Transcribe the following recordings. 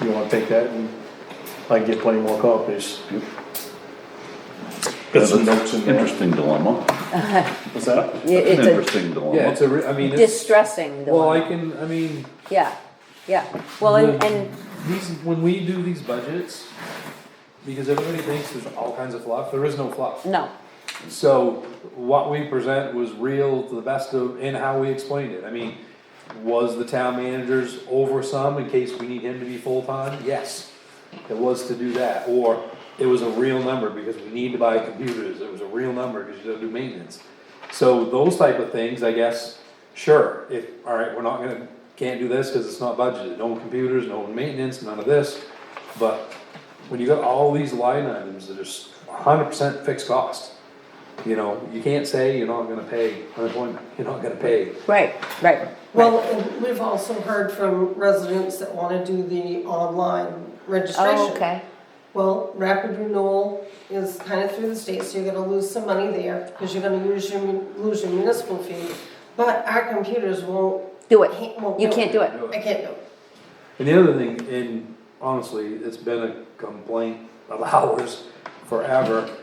You wanna take that and I can get plenty more copies. Got some notes in there. Interesting dilemma. What's that? That's an It's a interesting Yeah, dilemma. it's a, re- I mean, it's, distressing well, I dilemma, can, I mean, yeah, yeah. Well, and, and, these, when we do these budgets, because everybody thinks there's all kinds of fluff, there is no fluff. no, So what we present was real to the best of, in how we explained it. I mean, was the town manager's over some in case we need him to be full-time? Yes, it was to do that, or it was a real number because we need to buy computers, it was a real number because you don't do maintenance. So those type of things, I guess, sure, if, alright, we're not gonna, can't do this because it's not budgeted, no computers, no maintenance, none of this. But when you got all these line items that are hundred percent fixed cost, you know, you can't say you're not gonna pay unemployment, you're not gonna pay. right, right. Well, and we've also heard from residents that wanna do the online registration. Oh, okay, Well, rapid renewal is kinda through the state, so you're gonna lose some money there, cause you're gonna use your, mun- lose your municipal fee. But our computers won't, do it, can't, won't. you can't do it, I can't do it. And the other thing, and honestly, it's been a complaint of ours forever,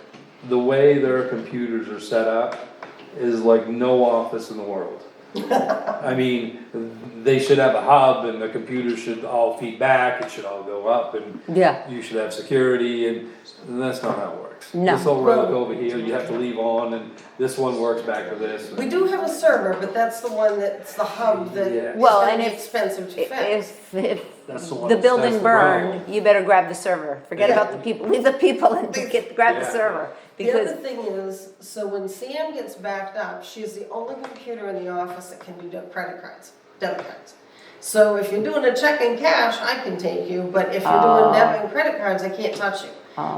the way their computers are set up is like no office in the world. I mean, they should have a hub and the computers should all feed back, it should all go up and yeah, you should have security and, and that's not how it works. No. This whole relic over here, you have to leave on and this one works back to this. We do have a server, but that's the one that's the hub that Yeah. is Well, gonna and be if- expensive to fix. if, if That's the one- the building that's the problem. burned, you better grab the server, forget Yeah. about the people, leave the people and get, grab the Yeah. server, The other because, thing is, so when Sam gets backed up, she's the only computer in the office that can do de- credit cards, debit cards. So if you're doing a check in cash, I can take you, but if you're doing debit and credit cards, I can't touch you.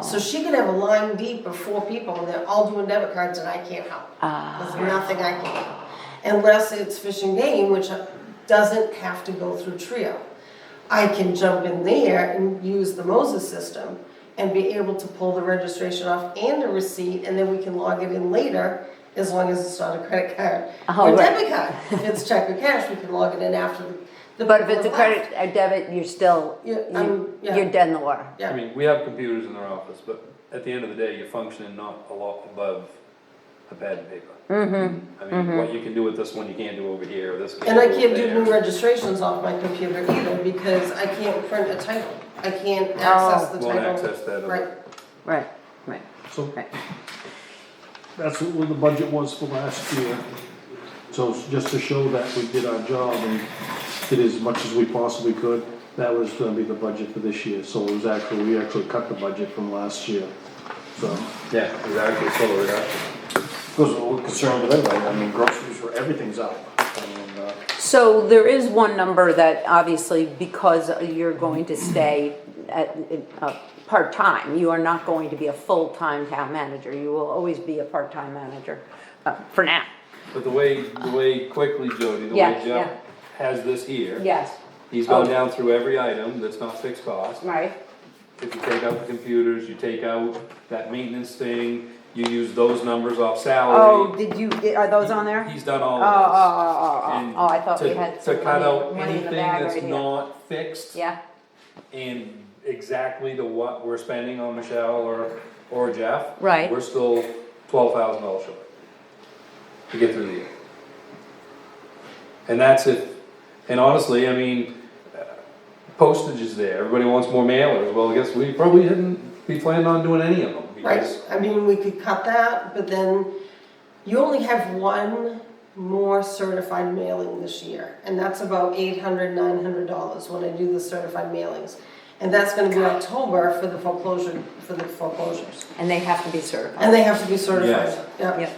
So she could have a line deep of four people and they're all doing debit cards and I can't help. There's nothing I can do. Unless it's fishing game, which doesn't have to go through Trio. I can jump in there and use the Moses system and be able to pull the registration off and a receipt, and then we can log it in later, as long as it's not a credit card Oh, or right. debit card. If it's check or cash, we can log it in after the. the but if it's a people credit, left. a debit, you're still, Yeah, you- um, yeah. you're dead in the water. Yeah. I mean, we have computers in their office, but at the end of the day, you're functioning not a lot above a pad and paper. Mm-hmm. I mean, what you can do with this one, you can't do over here, this. And I do can't do over new there. registrations off my computer either, because I can't print a title, I can't access Oh. the title. Won't access that other- Right, Right, right, So right. that's what the budget was for last year. So it's just to show that we did our job and did as much as we possibly could, that was gonna be the budget for this year. So it was actually, we actually cut the budget from last year. So, Yeah, exactly, so we're not- because we're concerned with everybody, I mean groceries were, everything's up. I mean, uh, So there is one number that obviously, because you're going to stay at, uh, part-time, you are not going to be a full-time town manager. You will always be a part-time manager, uh, for now. But the way, the way quickly, Jody, the Yeah, way Jeff yeah. has this here. Yes, He's gone Oh. down through every item that's not fixed cost. right, If you take out the computers, you take out that maintenance thing, you use those numbers off salary. Oh, did you, are those on there? He's done all Oh, oh, of this. oh, oh, oh, And oh, I thought we Mm. to- had To some cut money, out money in the anything bag right that's here. not fixed Yeah, and exactly to what we're spending on Michelle or, or Jeff. Right. We're still twelve thousand dollars short to get through the year. And that's if, and honestly, I mean, uh, postage is there, everybody wants more mailers, well, I guess we probably didn't be planning on doing any of them. right, because I mean, we could cut that, but then you only have one more certified mailing this year, and that's about eight hundred, nine hundred dollars when I do the certified mailings. And that's gonna be October for the foreclosure, for the foreclosures, and they have to be and certified. they have to be certified, Yes. yeah. Yep.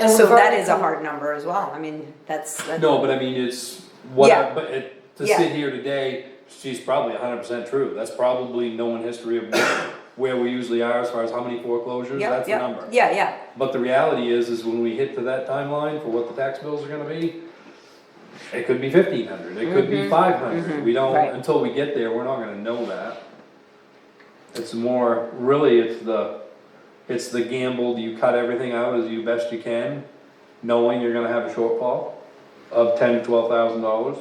And So we've that already- is a hard number as well. I mean, that's, that's- No, but I mean, it's, what, Yeah. I- but it, to Yeah. sit here today, she's probably hundred percent true, that's probably knowing history of where we usually are as far as how many foreclosures, Yep, that's the yep. number. Yeah, yeah. But the reality is, is when we hit to that timeline for what the tax bills are gonna be, it could be fifteen hundred, it could be five hundred, we don't, right. until we get there, we're not gonna know that. It's more, really, it's the, it's the gamble, you cut everything out as you best you can, knowing you're gonna have a shortfall of ten, twelve thousand dollars.